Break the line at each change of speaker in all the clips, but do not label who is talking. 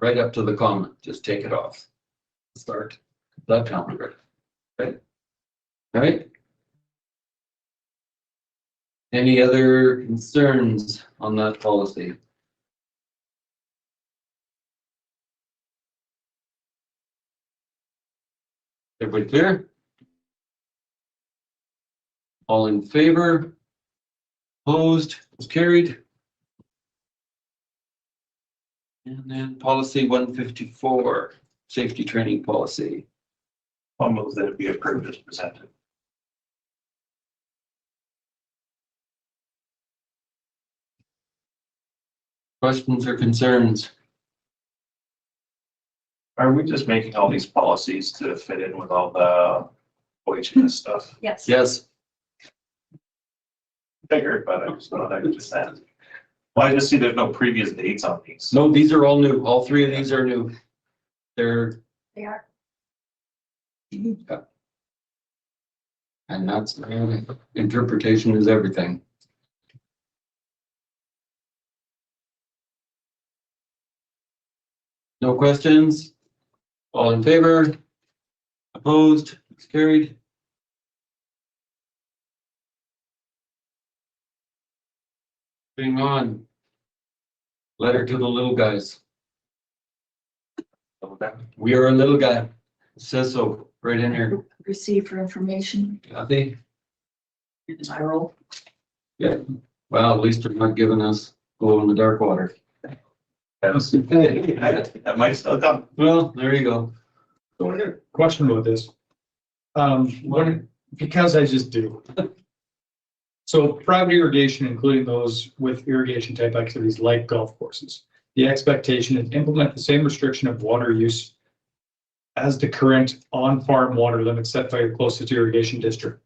right up to the comment, just take it off. Start that calendar, right? All right? Any other concerns on that policy? Everybody clear? All in favor? Opposed, It's carried. And then policy one fifty-four, safety training policy.
I'll move that it be approved as presented.
Questions or concerns?
Are we just making all these policies to fit in with all the OHS stuff?
Yes.
Yes,
Figured, but I just thought I could just add. Well, I just see there's no previous dates on these.
no, these are all new. All three of these are new. They're,
They are.
and that's, interpretation is everything. No questions? All in favor? Opposed, It's carried? Moving on. Letter to the little guys. We are a little guy. It Says so right in here.
Receive for information,
Kathy,
I roll.
well, at least they're not giving us glow in the dark water.
That's- That might still come.
Well, there you go.
So I got a question about this. Um, what- because I just do. So private irrigation, including those with irrigation type activities like golf courses, the expectation is implement the same restriction of water use as the current on-farm water limit set by your closest irrigation district.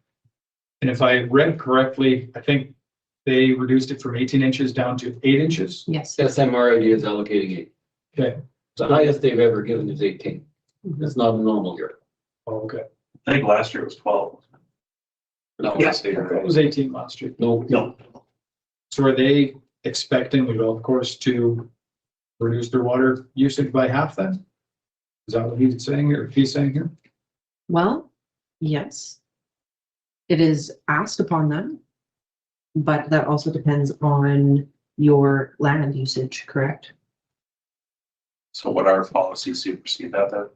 And if I read correctly, I think they reduced it from eighteen inches down to eight inches.
Yes.
SMRID is allocating eight.
Okay.
The highest they've ever given is eighteen. That's not a normal year.
Oh, Okay,
I think last year was twelve.
No.
Yes.
that was eighteen last year.
No,
No,
So are they expecting the golf course to reduce their water usage by half then? Is that what he's saying here, he's saying here?
Well, yes. It is asked upon them. But that also depends on your land usage, correct?
so what our policies supersede that then?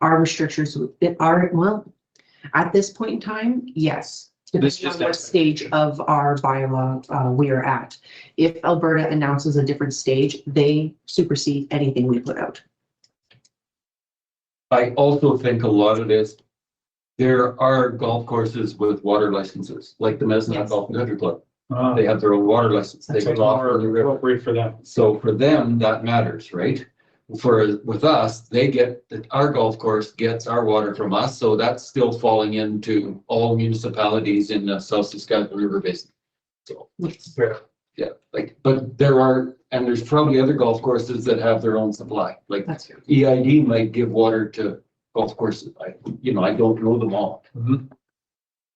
Our restrictions that are, well, at this point in time, yes.
This
Depending on
just-
what stage of our bylaw uh, we are at. If Alberta announces a different stage, they supersede anything we put out.
I also think a lot of this, there are golf courses with water licenses, like the Mesna
Yes.
Golf Country Club.
Uh,
They have their own water license. They
That's
go off the
more
river.
appropriate for them.
So for them, that matters, right? For, with us, they get, our golf course gets our water from us, so that's still falling into all municipalities in the South Saskatchewan River Basin. So,
Fair.
yeah, like, but there are, and there's probably other golf courses that have their own supply, like
That's fair.
EID might give water to golf courses. I, you know, I don't know them all.
Mhm.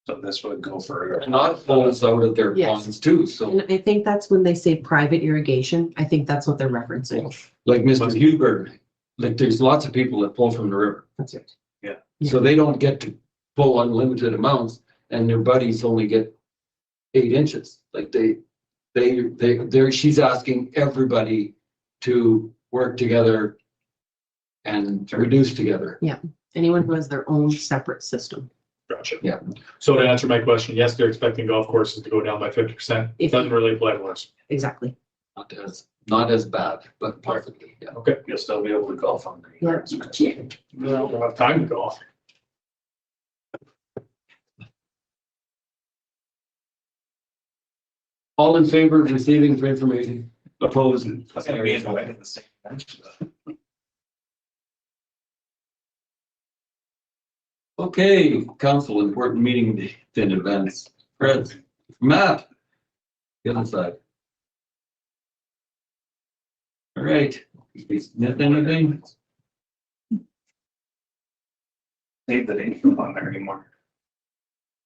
So this would go for.
And not those out of their
Yes.
ponds too, so
And I think that's when they say private irrigation, I think that's what they're referencing.
like Mr. Huber, like there's lots of people that pull from the river.
That's it.
So they don't get to pull unlimited amounts and their buddies only get eight inches. Like they, they, they, they're, she's asking everybody to work together and reduce together.
Anyone who has their own separate system.
Gotcha.
Yeah.
So to answer my question, yes, they're expecting golf courses to go down by fifty percent. It
If-
doesn't really apply to us.
Exactly.
Not as, not as bad, but possibly, yeah.
You'll still be able to golf on. green
Yeah.
grass.
We don't have time to golf.
All in favor of receiving for information, opposed?
That's gonna be in the way of the same. dimension.
Okay, council, important meeting day, then events. Fred, Matt. The other side. All right, Did we miss anything?
Save the date from on there anymore.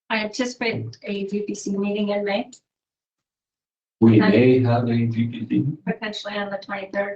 I anticipate a VPC meeting in May,
We may have a VPD.
potentially on the twenty-third.